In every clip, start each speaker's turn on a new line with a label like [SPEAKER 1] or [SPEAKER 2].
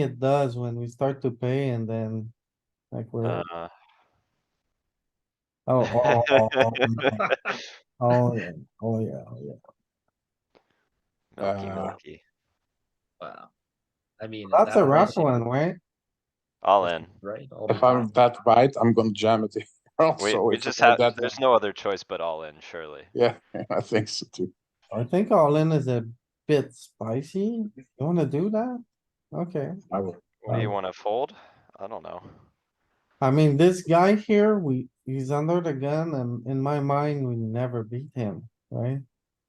[SPEAKER 1] it does when we start to pay and then like we're,
[SPEAKER 2] Uh,
[SPEAKER 1] oh, oh, oh, oh, yeah. oh, yeah, oh, yeah, oh, yeah.
[SPEAKER 2] milky,
[SPEAKER 1] Uh,
[SPEAKER 2] milky.
[SPEAKER 3] Wow. I mean. at
[SPEAKER 1] That's a
[SPEAKER 3] that
[SPEAKER 1] rough
[SPEAKER 3] rate,
[SPEAKER 1] one, right?
[SPEAKER 2] All in.
[SPEAKER 3] Right? all the
[SPEAKER 4] If I'm
[SPEAKER 3] time.
[SPEAKER 4] that right, I'm gonna jam it. here
[SPEAKER 2] We,
[SPEAKER 4] Also,
[SPEAKER 2] we
[SPEAKER 4] if
[SPEAKER 2] just
[SPEAKER 4] I'm
[SPEAKER 2] have,
[SPEAKER 4] uh, that-
[SPEAKER 2] there's no other choice but all in, surely.
[SPEAKER 4] Yeah, I think so too.
[SPEAKER 1] I think all in is a bit spicy. You wanna do that? Okay,
[SPEAKER 4] I will.
[SPEAKER 2] What do you
[SPEAKER 1] Um,
[SPEAKER 2] wanna fold? I don't know.
[SPEAKER 1] I mean, this guy here, we, he's under the gun and in my mind, we never beat him, right?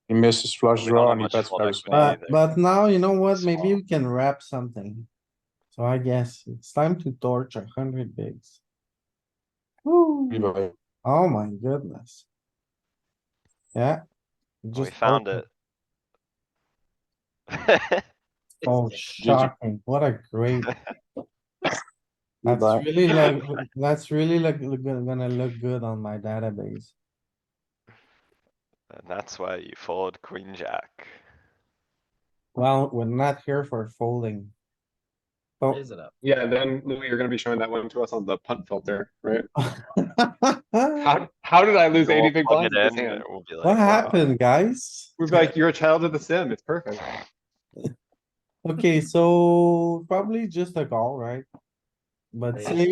[SPEAKER 4] He misses flush
[SPEAKER 2] We don't
[SPEAKER 4] draw
[SPEAKER 2] have
[SPEAKER 4] and he
[SPEAKER 2] much
[SPEAKER 4] bets
[SPEAKER 2] fallback
[SPEAKER 4] very
[SPEAKER 2] value.
[SPEAKER 4] small.
[SPEAKER 1] But, but now, you know what? Maybe
[SPEAKER 2] Small.
[SPEAKER 1] we can wrap something. So I guess it's time to torch a hundred bigs. Woo.
[SPEAKER 4] Anyway,
[SPEAKER 1] Oh my goodness. Yeah.
[SPEAKER 2] We
[SPEAKER 1] Just oh,
[SPEAKER 2] found
[SPEAKER 1] open-
[SPEAKER 2] it. That's
[SPEAKER 1] Oh, shocking. What a great. That's
[SPEAKER 4] Goodbye.
[SPEAKER 1] really like, that's really like, look- gonna look good on my database.
[SPEAKER 2] And that's why you fold queen jack.
[SPEAKER 1] Well, we're not here for folding.
[SPEAKER 5] oh.
[SPEAKER 1] So
[SPEAKER 3] Raise it up.
[SPEAKER 6] Yeah, then Louis, you're gonna be showing that one to us on the punt filter, right? How, how did I lose
[SPEAKER 2] We'll
[SPEAKER 6] eighty big
[SPEAKER 2] plug
[SPEAKER 6] blinds
[SPEAKER 2] it
[SPEAKER 6] with this
[SPEAKER 2] in,
[SPEAKER 6] hand?
[SPEAKER 2] and we'll be like,
[SPEAKER 1] What
[SPEAKER 2] "Wow."
[SPEAKER 1] happened, guys?
[SPEAKER 6] We'd be like, you're a child of the sim, it's perfect.
[SPEAKER 1] Okay, so probably just a call, right? But
[SPEAKER 3] Yeah.
[SPEAKER 1] say,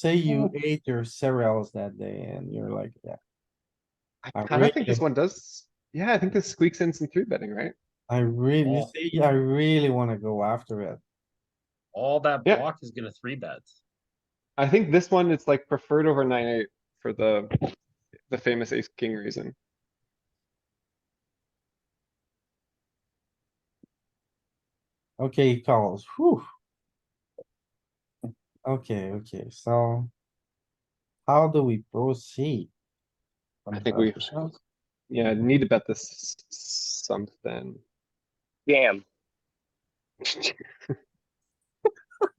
[SPEAKER 1] say you ate your cereals that day and you're like, yeah, I
[SPEAKER 6] I kinda
[SPEAKER 1] really-
[SPEAKER 6] think this one does, yeah, I think this squeaks in some three betting, right?
[SPEAKER 1] I really,
[SPEAKER 3] Yeah.
[SPEAKER 1] say, I really wanna go after it.
[SPEAKER 3] All that
[SPEAKER 6] Yeah.
[SPEAKER 3] block is gonna three bet.
[SPEAKER 6] I think this one, it's like preferred over nine eight for the, the famous ace king reason.
[SPEAKER 1] Okay, he calls, whew. Okay, okay, so. How do we proceed?
[SPEAKER 4] I'm
[SPEAKER 6] I think
[SPEAKER 4] glad
[SPEAKER 6] we-
[SPEAKER 4] to see it.
[SPEAKER 6] Yeah, need to bet this s- s- something.
[SPEAKER 5] Damn.
[SPEAKER 4] Yeah.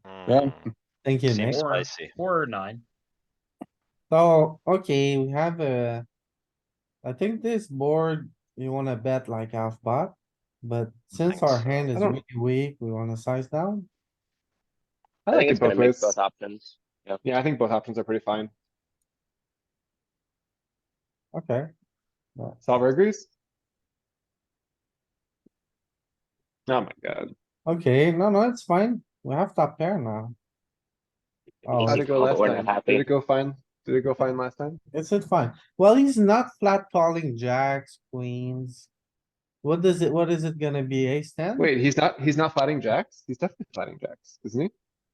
[SPEAKER 2] Mm,
[SPEAKER 1] Thank you, Nick.
[SPEAKER 2] Seems
[SPEAKER 3] Or-
[SPEAKER 2] spicy.
[SPEAKER 3] Four or nine.
[SPEAKER 1] So, okay, we have a. I think this board, you wanna bet like half pot, but since
[SPEAKER 2] think
[SPEAKER 1] our
[SPEAKER 2] so.
[SPEAKER 1] hand is
[SPEAKER 6] I don't-
[SPEAKER 1] really weak, we wanna size down.
[SPEAKER 6] I
[SPEAKER 5] I
[SPEAKER 6] like
[SPEAKER 5] think
[SPEAKER 6] it
[SPEAKER 5] it's gonna
[SPEAKER 6] both
[SPEAKER 5] mix
[SPEAKER 6] ways.
[SPEAKER 5] both options.
[SPEAKER 6] Yeah, I think both options are pretty fine.
[SPEAKER 1] Okay,
[SPEAKER 6] Solver agrees? Oh my god.
[SPEAKER 1] okay, no, no, it's fine. We have top pair now. Oh,
[SPEAKER 6] How'd it go
[SPEAKER 5] Oh,
[SPEAKER 6] last
[SPEAKER 5] we're not
[SPEAKER 6] time?
[SPEAKER 5] happy.
[SPEAKER 6] Did it go fine? Did it go fine last time?
[SPEAKER 1] Is it fine? Well, he's not flat calling jacks, queens. What does it, what is it gonna be? Ace ten?
[SPEAKER 6] Wait, he's not, he's not fighting jacks? He's definitely fighting jacks, isn't he?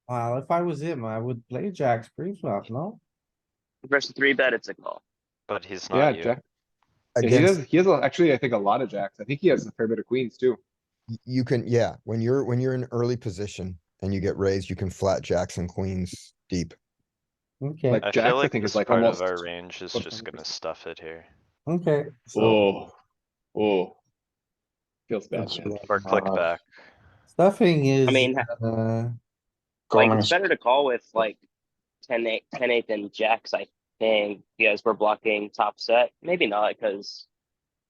[SPEAKER 1] Well, if I was him, I would play jacks pre-flop, no?
[SPEAKER 5] Versus three bet, it's a call.
[SPEAKER 2] But he's
[SPEAKER 6] Yeah,
[SPEAKER 2] not you.
[SPEAKER 6] jack. Yeah, he does, he has a- actually, I think, a lot of jacks. I think he has a fair bit of queens too.
[SPEAKER 7] Y- You can, yeah, when you're, when you're in early position and you get raised, you can flat jacks and queens deep.
[SPEAKER 1] Okay,
[SPEAKER 6] Like-
[SPEAKER 2] I
[SPEAKER 6] jacks, I
[SPEAKER 2] feel like
[SPEAKER 6] think, is
[SPEAKER 2] this
[SPEAKER 6] like
[SPEAKER 2] part of
[SPEAKER 6] almost
[SPEAKER 2] our range is just
[SPEAKER 6] 100%.
[SPEAKER 2] gonna stuff it here.
[SPEAKER 1] okay, so
[SPEAKER 6] Oh, oh. Feels bad,
[SPEAKER 4] That's
[SPEAKER 6] man.
[SPEAKER 4] right.
[SPEAKER 2] Or click
[SPEAKER 4] Uh,
[SPEAKER 2] back.
[SPEAKER 1] stuffing is,
[SPEAKER 5] I mean, ha-
[SPEAKER 1] uh,
[SPEAKER 5] like,
[SPEAKER 4] Calling
[SPEAKER 5] it's
[SPEAKER 4] is-
[SPEAKER 5] better to call with like ten eight, ten eight than jacks, I think, because we're blocking top set. Maybe not, because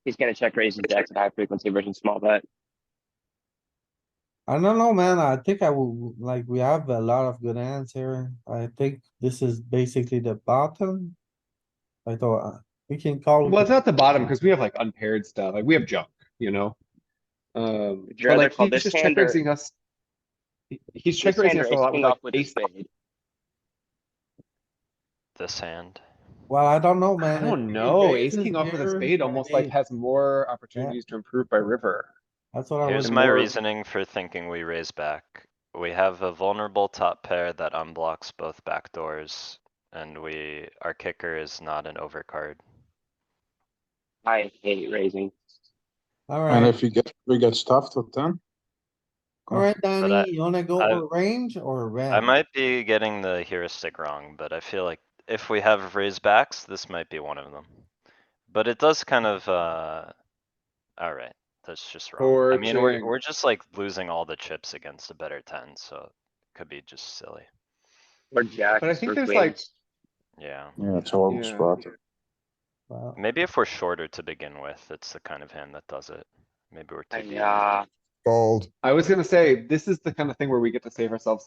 [SPEAKER 5] he's gonna check raise his jacks at high frequency versus small bet.
[SPEAKER 1] I don't know, man. I think I will, like, we have a lot of good hands here. I think this is basically the bottom. I thought, uh, we can call.
[SPEAKER 6] Well, it's not the bottom, because we have like unpaired stuff, like we have junk, you know? Um,
[SPEAKER 5] Would you
[SPEAKER 6] but
[SPEAKER 5] rather
[SPEAKER 6] like,
[SPEAKER 5] call
[SPEAKER 6] he's
[SPEAKER 5] this
[SPEAKER 6] just
[SPEAKER 5] hand
[SPEAKER 6] check
[SPEAKER 5] or-
[SPEAKER 6] raising us. He- He's check
[SPEAKER 5] Ace
[SPEAKER 6] raising
[SPEAKER 5] ten
[SPEAKER 6] us
[SPEAKER 5] or
[SPEAKER 6] a
[SPEAKER 5] ace
[SPEAKER 6] lot
[SPEAKER 5] king
[SPEAKER 6] with like
[SPEAKER 5] off with a
[SPEAKER 6] ace.
[SPEAKER 5] spade.
[SPEAKER 2] This hand.
[SPEAKER 1] Well, I don't know,
[SPEAKER 6] I
[SPEAKER 1] man.
[SPEAKER 6] don't
[SPEAKER 1] If
[SPEAKER 6] know,
[SPEAKER 1] ace
[SPEAKER 6] ace king
[SPEAKER 1] is
[SPEAKER 6] off with a
[SPEAKER 1] there,
[SPEAKER 6] spade almost like
[SPEAKER 1] hey,
[SPEAKER 6] has more opportunities to improve by river.
[SPEAKER 1] That's what I was.
[SPEAKER 2] Here's my
[SPEAKER 6] more-
[SPEAKER 2] reasoning for thinking we raise back. We have a vulnerable top pair that unblocks both back doors, and we, our kicker is not an overcard.
[SPEAKER 5] I hate raising.
[SPEAKER 4] And
[SPEAKER 1] Alright,
[SPEAKER 4] if you get, we get stuffed with ten.
[SPEAKER 1] alright,
[SPEAKER 2] I-
[SPEAKER 1] Danny, you wanna go
[SPEAKER 2] I-
[SPEAKER 1] for range or red?
[SPEAKER 2] I might be getting the heuristic wrong, but I feel like if we have raise backs, this might be one of them. But it does kind of, uh, alright, that's just wrong. I mean, we're,
[SPEAKER 6] Fortune.
[SPEAKER 2] we're just like losing all the chips against a better ten, so it could be just silly.
[SPEAKER 5] Or jacks.
[SPEAKER 6] But I think
[SPEAKER 5] or
[SPEAKER 6] there's like,
[SPEAKER 5] queens.
[SPEAKER 2] Yeah,
[SPEAKER 4] Yeah, it's a horrible
[SPEAKER 6] Yeah.
[SPEAKER 4] spot.
[SPEAKER 1] Well,
[SPEAKER 2] maybe if we're shorter to begin with, it's the kind of hand that does it. Maybe we're too deep.
[SPEAKER 5] Yeah.
[SPEAKER 7] Fold.
[SPEAKER 6] I was gonna say, this is the kind of thing where we get to save ourselves